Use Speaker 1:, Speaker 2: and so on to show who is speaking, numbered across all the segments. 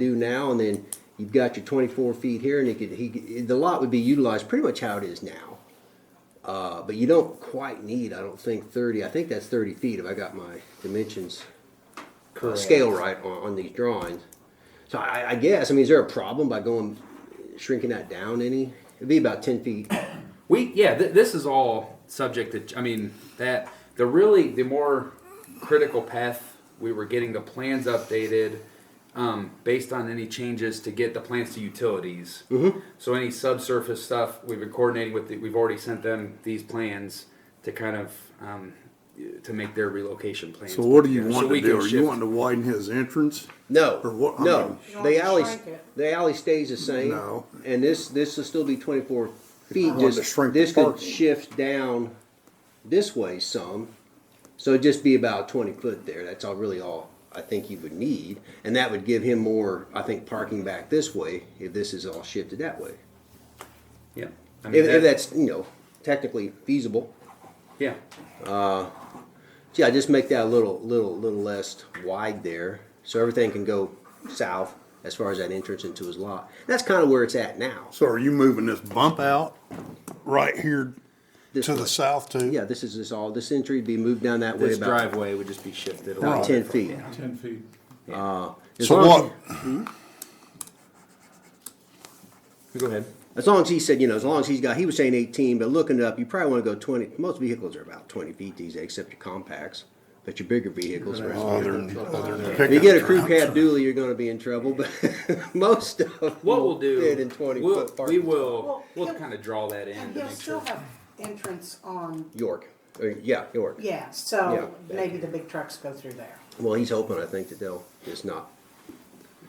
Speaker 1: you do now, and then you've got your twenty-four feet here, and it could, he, the lot would be utilized pretty much how it is now. Uh, but you don't quite need, I don't think, thirty, I think that's thirty feet if I got my dimensions, uh, scale right on, on these drawings. So I, I guess, I mean, is there a problem by going, shrinking that down any? It'd be about ten feet,
Speaker 2: We yeah, th- this is all subject to. ch- I mean that the really the more critical path we were getting the plans updated um, based on any changes to get the plans to utilities. Mm-hmm. So any subsurface stuff we've been coordinating with. The, we've already sent them these plans to kind of um, to make their relocation plans.
Speaker 3: So what do you
Speaker 2: Yeah, so
Speaker 3: want
Speaker 2: we
Speaker 3: to do?
Speaker 2: can
Speaker 3: Are you
Speaker 2: shift-
Speaker 3: wanting to widen his entrance?
Speaker 1: no,
Speaker 3: Or what-
Speaker 1: no,
Speaker 3: I mean-
Speaker 4: You want
Speaker 1: the
Speaker 4: to
Speaker 1: alley,
Speaker 4: shrink it.
Speaker 1: the alley stays the same.
Speaker 3: No.
Speaker 1: And this, this will still be twenty-four feet,
Speaker 3: wanted to
Speaker 1: just,
Speaker 3: shrink the
Speaker 1: this could
Speaker 3: parking.
Speaker 1: shift down this way some. So it'd just be about twenty foot there, that's all, really all I think you would need, and that would give him more, I think, parking back this way, if this is all shifted that way.
Speaker 2: Yeah. I mean,
Speaker 1: If,
Speaker 2: that-
Speaker 1: if that's, you know, technically feasible.
Speaker 2: yeah.
Speaker 1: Yeah, just make that a little, little, little less wide there, so everything can go south as far as that entrance into his lot. That's kind of where it's at now.
Speaker 3: So are you moving this bump out right here
Speaker 1: This
Speaker 3: to the
Speaker 1: way.
Speaker 3: south too?
Speaker 1: Yeah, this is this all. This entry would be moved down that way
Speaker 2: This
Speaker 1: about
Speaker 2: driveway would just be shifted a
Speaker 1: about
Speaker 2: little
Speaker 1: ten
Speaker 2: bit.
Speaker 1: feet.
Speaker 5: Ten feet.
Speaker 1: As
Speaker 3: So
Speaker 1: long as-
Speaker 3: what,
Speaker 2: Go ahead.
Speaker 1: As long as he said, you know, as long as he's got, he was saying eighteen, but looking it up, you probably want to go twenty. Most vehicles are about twenty feet these days, except your compacts. But your bigger vehicles are. out
Speaker 3: other
Speaker 1: there.
Speaker 3: than, other Oh, than
Speaker 1: If you get a
Speaker 3: pickup
Speaker 1: crew
Speaker 3: truck.
Speaker 1: cab dually, you're going to be in trouble. But most of them
Speaker 2: What we'll do,
Speaker 1: fit in 20
Speaker 2: we'll,
Speaker 1: foot parking
Speaker 2: we will,
Speaker 4: Well,
Speaker 2: we'll
Speaker 4: he'll-
Speaker 2: kind of draw that in
Speaker 4: And
Speaker 2: to make
Speaker 4: he'll
Speaker 2: sure.
Speaker 4: still have entrance on,
Speaker 1: York, Or, yeah, York.
Speaker 4: yeah, so
Speaker 1: Yeah.
Speaker 4: maybe the big trucks go through there.
Speaker 1: Well, he's hoping, I think, that they'll just not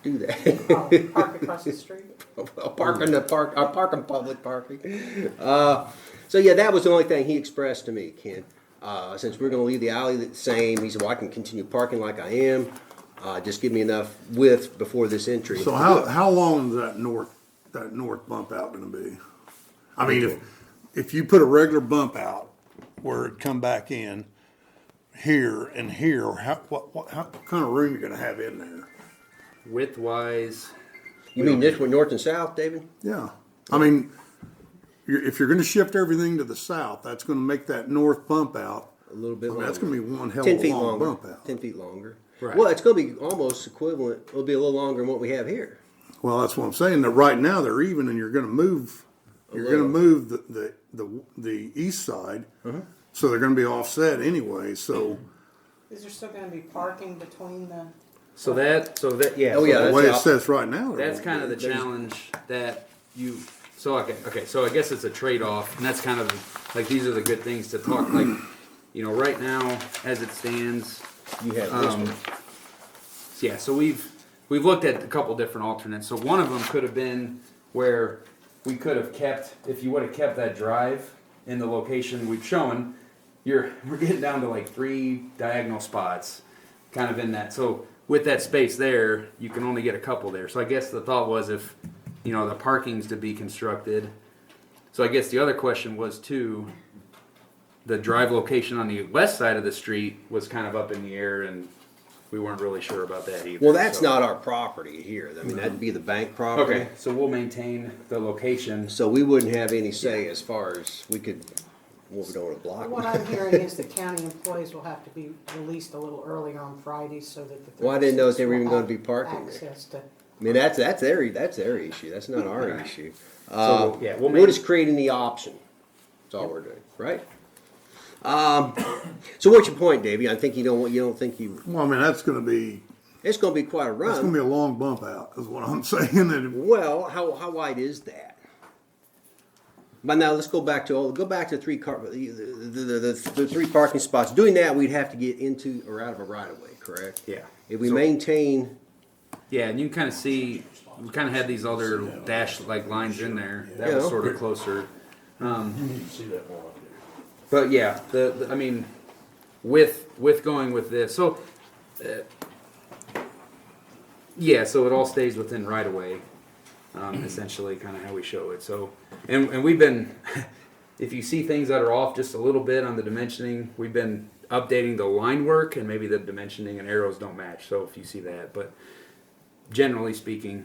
Speaker 1: do that.
Speaker 4: Oh, Park across the street.
Speaker 1: I'll park in the park, I'll park in public parking. Uh, So yeah, that was the only thing he expressed to me, Ken. Uh, Since we're gonna leave the alley the same, he said, well, I can continue parking like I am. Uh, Just give me enough width before this entry.
Speaker 3: So how, how long is that north, that north bump out gonna be? I mean, if, if you put a regular bump out where it'd come back in here and here, how, what, what, how, what kind of room you gonna have in there?
Speaker 2: Width wise,
Speaker 1: You mean this one, north and south, David?
Speaker 3: Yeah, I mean, you're, if you're gonna shift everything to the south, that's gonna make that north bump out.
Speaker 1: A little bit
Speaker 3: I mean,
Speaker 1: longer.
Speaker 3: That's gonna be one hell
Speaker 1: Ten
Speaker 3: of a
Speaker 1: feet
Speaker 3: long
Speaker 1: longer,
Speaker 3: bump out.
Speaker 1: ten feet longer.
Speaker 2: Right.
Speaker 1: Well, it's gonna be almost equivalent, it'll be a little longer than what we have here.
Speaker 3: Well, that's what I'm saying, that right now they're even and you're gonna move, you're
Speaker 1: little. Uh-huh.
Speaker 3: gonna move the, the, the, the east side. So they're gonna be offset anyway, so
Speaker 4: Is there still gonna be parking between the,
Speaker 2: so that, so that, yeah.
Speaker 1: Oh,
Speaker 2: so
Speaker 1: yeah,
Speaker 3: the
Speaker 1: that's
Speaker 3: way it
Speaker 1: out.
Speaker 3: sits right now. there
Speaker 2: That's
Speaker 3: won't
Speaker 2: kind of the
Speaker 3: be.
Speaker 2: challenge that you, so, okay, okay, so I guess it's a trade-off, and that's kind of, like, these are the good things to talk, like, you know, right now, as it stands,
Speaker 1: You have this
Speaker 3: Um,
Speaker 1: one.
Speaker 2: yeah, so we've, we've looked at a couple different alternates, so one of them could have been where we could have kept, if you would have kept that drive in the location we've shown, you're, we're getting down to like three diagonal spots, kind of in that, so with that space there, you can only get a couple there, so I guess the thought was if, you know, the parking's to be constructed, so I guess the other question was too, the drive location on the west side of the street was kind of up in the air and we weren't really sure about that either.
Speaker 1: Well, that's
Speaker 2: so-
Speaker 1: not our property here. I mean, that'd be the bank property.
Speaker 2: Okay, so we'll maintain the location.
Speaker 1: So we wouldn't have any say as far as we could, what we don't want to block.
Speaker 4: what I'm hearing is the county employees will have to be released a little early on Friday so that the.
Speaker 1: Well, I didn't know if they were
Speaker 4: will
Speaker 1: even gonna
Speaker 4: have
Speaker 1: be parking there.
Speaker 4: Access to,
Speaker 1: I mean, that's, that's their, that's their issue. That's not our issue.
Speaker 2: So, yeah, we'll
Speaker 1: We're
Speaker 2: make,
Speaker 1: just creating the option. That's all we're doing, right? Um, so what's your point, Davey? I think you don't, want- you don't think you,
Speaker 3: Well, I mean, that's gonna be,
Speaker 1: it's gonna be quite a
Speaker 3: that's gonna be
Speaker 1: run.
Speaker 3: a long bump out, is what I'm saying, and
Speaker 1: Well, how, how wide is that? But now let's go back to, all go back to three car, the, the, the, the, the three parking spots. Doing that, we'd have to get into or out of a right of way, correct?
Speaker 2: yeah.
Speaker 1: If we
Speaker 2: So-
Speaker 1: maintain
Speaker 2: Yeah, and you can kind of see, we kind of had these other dash like lines in there. That was
Speaker 1: Yeah.
Speaker 2: sort of closer.
Speaker 6: See that more up there.
Speaker 2: But yeah, the, the- I mean, with with going with this, so uh, yeah, so it all stays within right away, um, essentially, kind of how we show it. So, and and we've been, if you see things that are off just a little bit on the dimensioning, we've been updating the line work, and maybe the dimensioning and arrows don't match. So if you see that, but generally speaking,